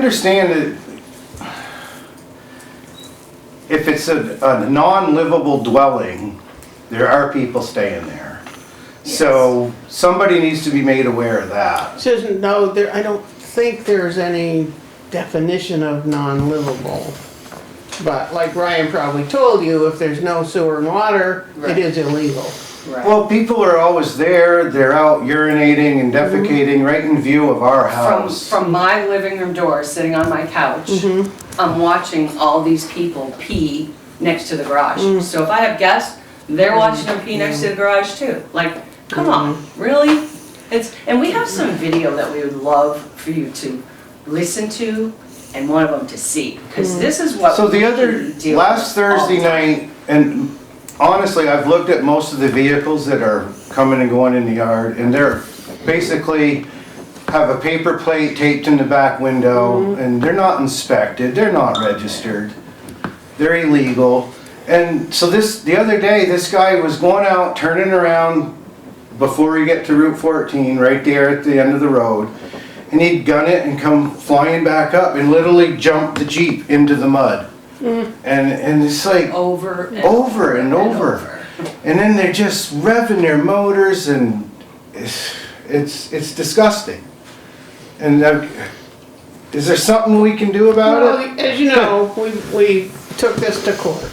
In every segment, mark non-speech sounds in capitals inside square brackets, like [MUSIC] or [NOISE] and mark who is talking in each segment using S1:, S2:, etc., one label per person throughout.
S1: understand that if it's a, a non-livable dwelling, there are people staying there. So somebody needs to be made aware of that.
S2: Susan, no, there, I don't think there's any definition of non-livable. But like Ryan probably told you, if there's no sewer and water, it
S3: Right.
S2: is illegal.
S3: Right.
S1: Well, people are always there, they're out urinating and defecating right in view of our
S3: Mm-hmm. From,
S1: house.
S3: from my living room door, sitting on my couch, I'm watching all these people pee next to the garage. So if I have guests, they're watching them pee next to the garage too. Like, come on, really? It's, and we have some video that we would love for you to listen to and one of them to see. Because this is what
S1: So the other,
S3: we Oh. deal
S1: last
S3: with all
S1: Thursday
S3: the time.
S1: night, and honestly, I've looked at most of the vehicles that are coming and going in the yard, and they're basically have a paper plate taped in the back window,
S3: Mm-hmm.
S1: and they're not inspected, they're not registered, they're illegal. And so this, the other day, this guy was going out, turning around before you get to Route fourteen, right there at the end of the road, and he'd gun it and come flying back up and literally jump the Jeep into the mud.
S2: Hmm.
S1: And, and it's like,
S2: Oh.
S3: Over and
S1: Over and over. and then they're just revving their motors and it's, it's, it's disgusting. And uh, is there something we can do about it?
S2: Well, as you know, we, we took this to court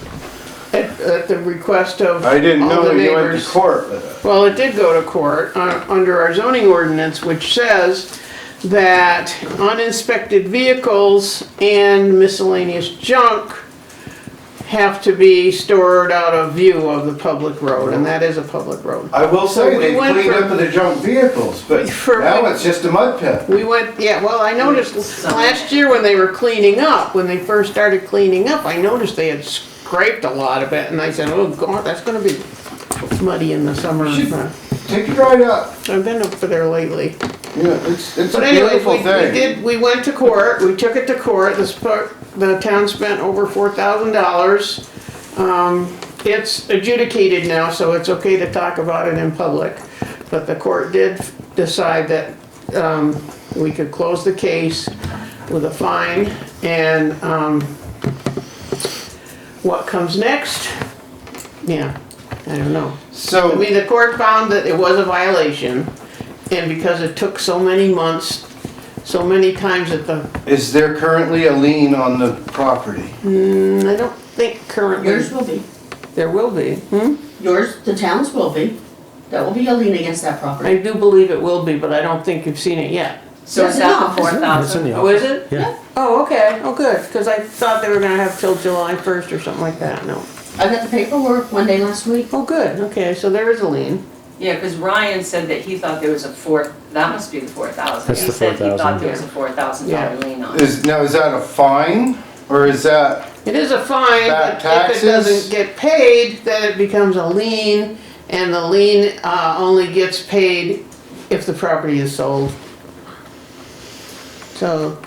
S2: at, at the request of
S1: I didn't
S2: all
S1: know
S2: the
S1: that you went to
S2: neighbors.
S1: court with it.
S2: Well, it did go to court uh, under our zoning ordinance, which says that uninspected vehicles and miscellaneous junk have to be stored out of view of the public road, and that is a public road.
S1: I will
S2: So
S1: say
S2: we
S1: they
S2: went
S1: cleaned
S2: for-
S1: up the junk vehicles, [LAUGHS] but
S2: For-
S1: now it's just a mud pit.
S2: We went, yeah, well, I noticed
S3: Some-
S2: last year when they were cleaning up, when they first started cleaning up, I noticed they had scraped a lot of it, and I said, oh, God, that's gonna be muddy in the summer.
S1: Should- Take it right up.
S2: I've been up there lately.
S1: Yeah, it's, it's a
S2: But anyways,
S1: beautiful
S2: we, we
S1: thing.
S2: did, we went to court, we took it to court, this part, the town spent over four thousand dollars. Um, it's adjudicated now, so it's okay to talk about it in public, but the court did decide that, um, we could close the case with a fine, and, um, what comes next? Yeah, I don't know. I
S1: So,
S2: mean, the court found that it was a violation, and because it took so many months, so many times that the,
S1: is there currently a lien on the property?
S2: mm, I don't think currently
S4: Yours will be,
S2: there will be.
S4: yours, the town's will be. That will be a lien against that property.
S2: I do believe it will be, but I don't think you've seen it yet.
S3: So is
S4: Yes,
S3: that
S4: it's
S3: the four thousand? Oh, is it?
S4: Yeah.
S2: Oh, okay, oh, good, because I thought they were gonna have till July first or something like that, no.
S4: I got the paperwork one day last week.
S2: Oh, good, okay, so there is a lien.
S3: Yeah, because Ryan said that he thought there was a four, that must be the four thousand.
S5: That's
S3: He
S5: the
S3: said he thought
S5: 4,000.
S3: there was a four thousand dollar lien on it.
S1: Is, now, is that a fine or is that?
S2: It is a fine,
S1: Back
S2: but if
S1: taxes?
S2: it doesn't get paid, then it becomes a lien, and the lien, uh, only gets paid if the property is sold. So,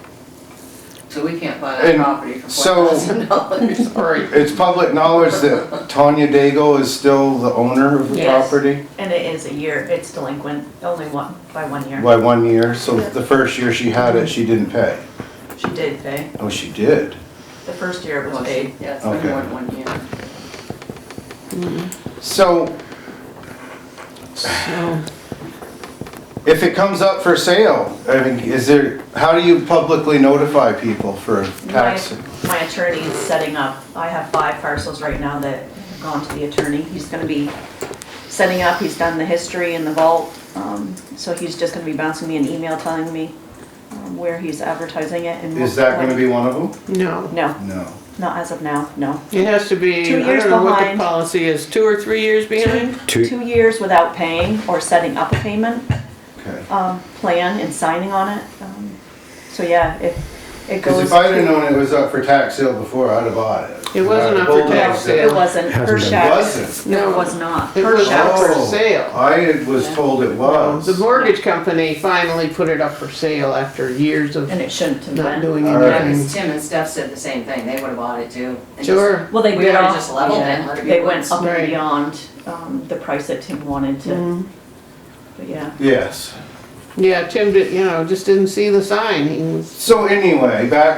S3: So we can't buy that
S1: And
S3: property for
S1: so-
S3: four
S1: [LAUGHS]
S3: thousand dollars.
S2: all right,
S1: It's public knowledge that Tanya Dago is still the owner of the
S6: Yes.
S1: property
S6: And it is a year, it's delinquent, only one, by one year.
S1: by one year, so the first year she had it, she didn't pay.
S6: She did pay,
S1: Oh, she did?
S6: the first year it was paid.
S3: Yeah, it's been
S1: Okay.
S3: more than one year.
S1: So
S2: so,
S1: if it comes up for sale, I mean, is there, how do you publicly notify people for
S6: My,
S1: tax?
S6: my attorney is setting up, I have five parcels right now that have gone to the attorney. He's gonna be setting up, he's done the history in the vault, um, so he's just gonna be bouncing me an email telling me um, where he's advertising it and.
S1: Is that gonna be one of
S2: no.
S6: No,
S1: them? No.
S6: not as of now, no.
S2: It has to be,
S6: Two
S2: I
S6: years
S2: don't know what the
S6: behind.
S2: policy is, two or three years behind?
S5: Two-
S6: Two years without paying or setting up a payment.
S1: Okay.
S2: Uh,
S6: um, plan and signing on it. Um, So yeah, if it
S1: Cause
S6: goes.
S1: if I'd have
S6: to-
S1: known it was up for tax sale before, I'd have bought it.
S2: It wasn't up for
S1: Bold
S2: tax
S1: sale.
S2: sale.
S6: It wasn't, her
S5: Hasn't been.
S6: shack.
S1: Wasn't?
S6: No, it was not.
S2: It
S6: Her
S2: was
S6: shack.
S2: up for
S1: Oh,
S2: sale.
S1: I was told it was.
S2: The mortgage company finally put it up for sale after years of
S6: And it shouldn't have
S2: not
S6: been.
S2: doing
S1: All right.
S3: Yeah,
S2: anything.
S3: because Tim and Steph said the same thing, they would have bought it too. and just-
S2: Sure.
S6: Well, they
S3: We
S6: did
S3: would've
S6: all-
S3: just leveled it,
S6: yeah,
S3: let it be
S6: They
S3: woods.
S6: went up
S2: Right.
S6: and beyond um, the price that Tim wanted to, but yeah.
S1: Yes.
S2: Yeah, Tim did, you know, just didn't see the sign, he was
S1: So anyway, back